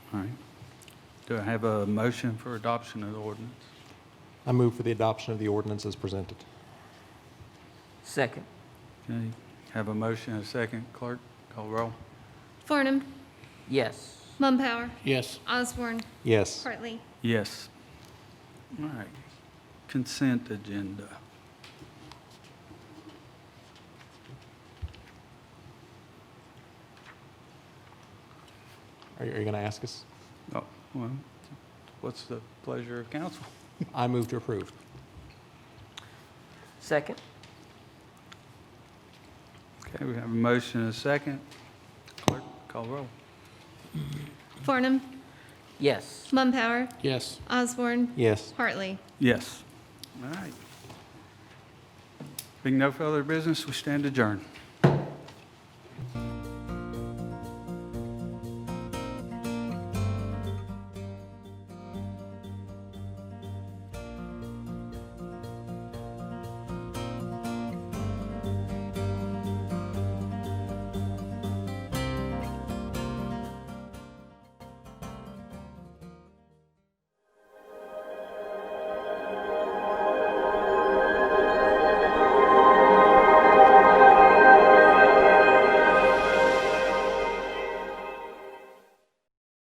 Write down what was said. All right. Do I have a motion for adoption of the ordinance? I move for the adoption of the ordinance as presented. Second. Okay, have a motion and a second. Clerk, call roll. Farnum, Yes. Mumpower, yes, Osborne, Yes. Hartley. Yes. All right. Consent agenda. Are you, are you going to ask us? Oh, well, what's the pleasure of council? I move to approve. Second. Okay, we have a motion and a second. Clerk, call roll. Farnum, Yes. Mumpower, yes, Osborne, Yes. Hartley. Yes. All right. Being no further business, we stand adjourned.